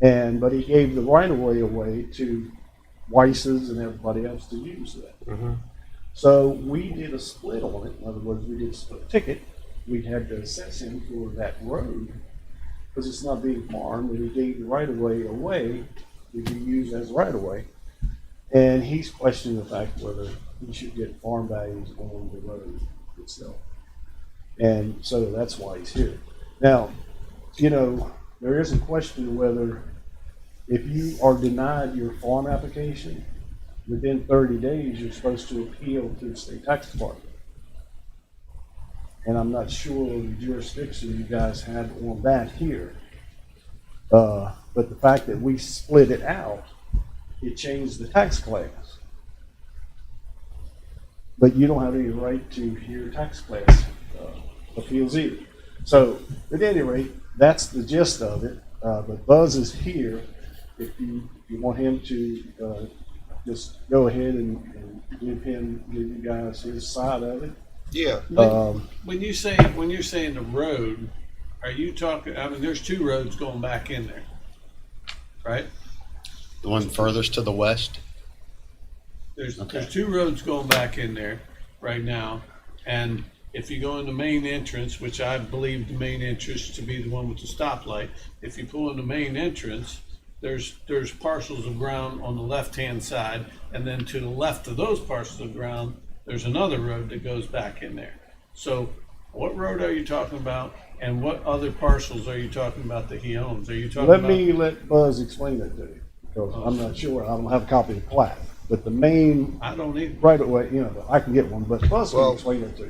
And, but he gave the right of way away to Weiss's and everybody else to use that. Mm-hmm. Mhm. So we did a split on it. In other words, we did a split ticket. We had to assess him for that road because it's not being farmed and we gave the right of way away to be used as right of way. And he's questioning the fact whether he should get farm values on the road itself. And so that's why he's here. Now, you know, there is a question whether if you are denied your farm application, within thirty days, you're supposed to appeal to the state tax department. And I'm not sure the jurisdiction you guys had on that here. Uh, but the fact that we split it out, it changed the tax class. But you don't have any right to hear tax class, uh, appeals either. So, at any rate, that's the gist of it, uh, but Buzz is here if you, you want him to, uh, just go ahead and, and give him, give you guys his side of it. Yeah. Um, When you say, when you're saying the road, are you talking, I mean, there's two roads going back in there, right? The one furthest to the west? There's, Okay. there's two roads going back in there right now. And if you go in the main entrance, which I believe the main entrance to be the one with the stoplight, if you pull in the main entrance, there's, there's parcels of ground on the left-hand side. And then to the left of those parcels of ground, there's another road that goes back in there. So what road are you talking about? And what other parcels are you talking about that he owns? Are you talking let about? me let Buzz explain that to you, because I'm not sure, I don't have a copy of the plat. But the main I don't either. right away, you know, I can get one, but Buzz can Well- explain it to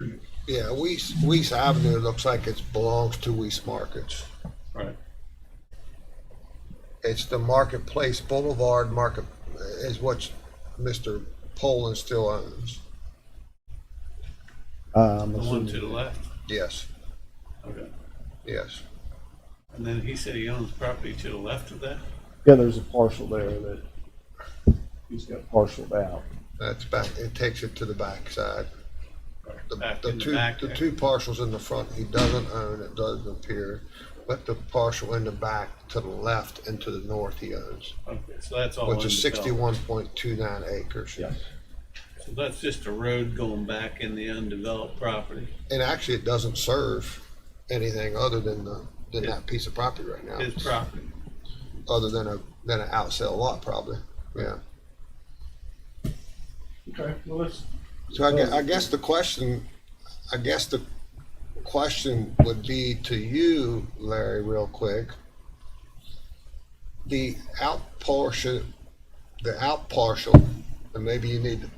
you. Yeah, Weiss, Weiss Avenue looks like it belongs to Weiss Markets. Right. It's the Marketplace Boulevard Market is what Mr. Poland still owns. Um, The one to the left. Yes, Okay. yes. And then he said he owns property to the left of that? yeah, there's a parcel there that he's got parceled out. That's back, it takes it to the backside. The, Back the in the two, back the there. two parcels in the front, he doesn't own, it doesn't appear, but the parcel in the back to the left and to the north he owns, Okay, so that's all. which is undeveloped. sixty-one point two nine acres. Yeah. So that's just a road going back in the undeveloped property. And actually, it doesn't serve anything other than the, than that piece of property right now. His property. Other than a, than an outsell lot probably, yeah. Okay, well, let's. So I guess, I guess the question, I guess the question would be to you, Larry, real quick. The out portion, the out partial, and maybe you need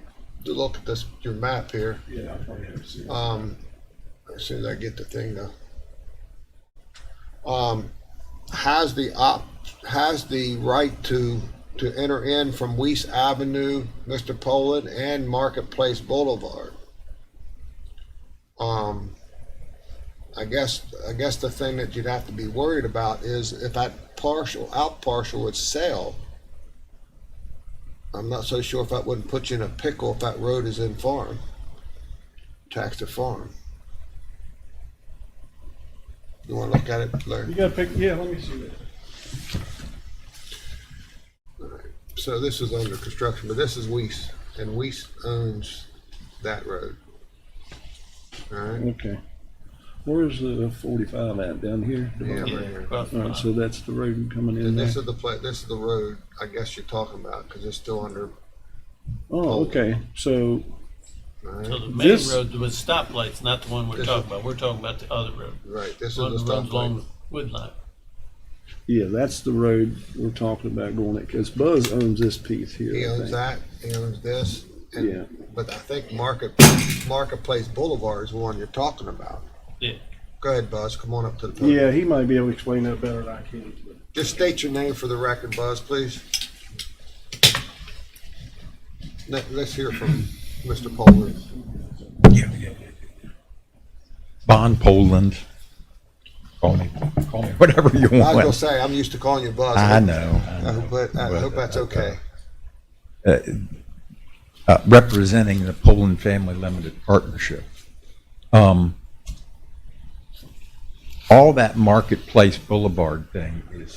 to look at this, your map here. Yeah, I'll probably have to see. Um, as soon as I get the thing though. Um, has the op, has the right to, to enter in from Weiss Avenue, Mr. Poland, and Marketplace Boulevard. Um, I guess, I guess the thing that you'd have to be worried about is if that partial, out partial would sell. I'm not so sure if that wouldn't put you in a pickle if that road is in farm, tax to farm. You wanna look at it, Larry? You gotta pick, yeah, let me see that. So this is under construction, but this is Weiss, and Weiss owns that road. All right, Okay. Where's the forty-five at, down here? yeah, right Yeah, here. across the Alright, so that's the road coming in Mm-hmm. And there? this is the pla, this is the road, I guess you're talking about, because it's still under, Oh, okay, so, all line. right, So the main This- road with stoplights, not the one we're This- talking about. We're talking about the other road. right, this is One the that stop runs light. along Woodline. yeah, that's the road we're talking about going at, because Buzz owns this piece here. He I owns think. that, he owns this, Yeah. and, but I think Market, Marketplace Boulevard is the one you're talking about. Yeah. Go ahead, Buzz, come on up to the podium. Yeah, he might be able to explain that better than I can. but- Just state your name for the record, Buzz, please. Let, let's hear from Mr. Poland. Bon Poland. Call me, call me whatever you I was gonna want. say, I'm used to calling you Buzz. I know. I hope that- I hope that's okay. Uh, Representing the Poland Family Limited Partnership. Um, All that Marketplace Boulevard thing is